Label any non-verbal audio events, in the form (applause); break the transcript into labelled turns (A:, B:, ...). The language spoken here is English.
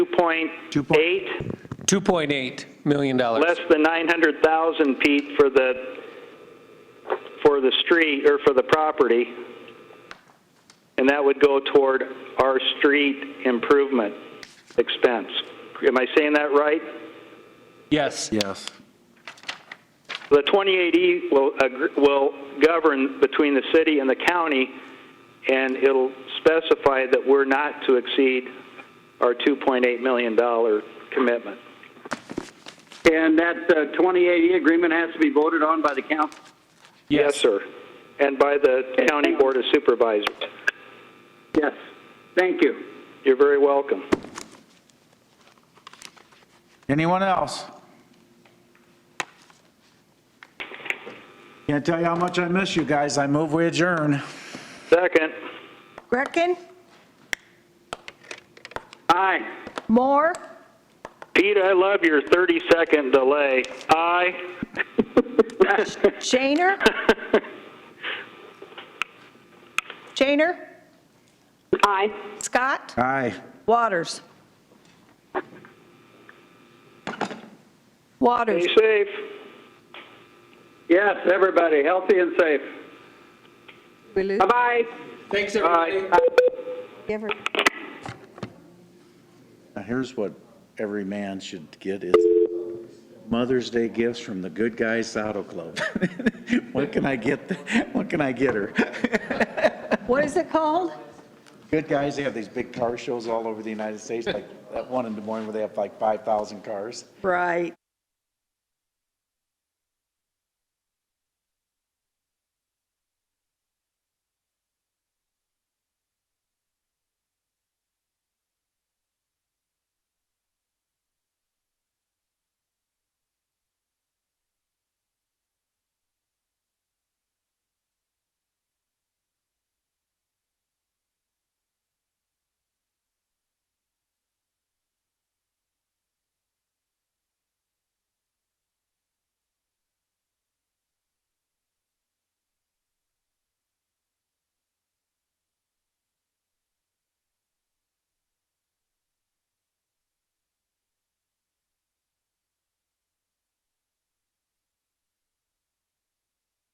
A: 2.8,
B: $2.8 million.
A: less than 900,000, Pete, for the, for the street, or for the property. And that would go toward our street improvement expense. Am I saying that right?
B: Yes.
C: Yes.
A: The 28E will, agr- will govern between the city and the county, and it'll specify that we're not to exceed our $2.8 million commitment.
D: And that uh, 2080 agreement has to be voted on by the council?
A: Yes, sir. And by the County Board of Supervisors.
D: Yes. Thank you.
A: You're very welcome.
C: Anyone else? Can't tell you how much I miss you guys. I move we adjourn.
A: Second,
E: Greckin,
D: Aye.
E: Moore,
A: Pete, I love your 30-second delay.
D: (laughs)
A: Aye.
E: Shaner. Shaner,
F: Aye.
E: Scott,
C: Aye.
E: Waters. Waters,
A: Be safe.
D: Yes, everybody, healthy and safe.
E: we lose
D: Bye-bye.
B: Thanks,
D: Bye.
E: Gifford.
C: Now, here's what every man should get is Mother's Day gifts from the Good Guys Saddle Club. (laughs) What can I get, what can I get her?
E: What is it called?
C: Good Guys, they have these big car shows all over the United States, like that one in Des Moines where they have like 5,000 cars.
E: Right.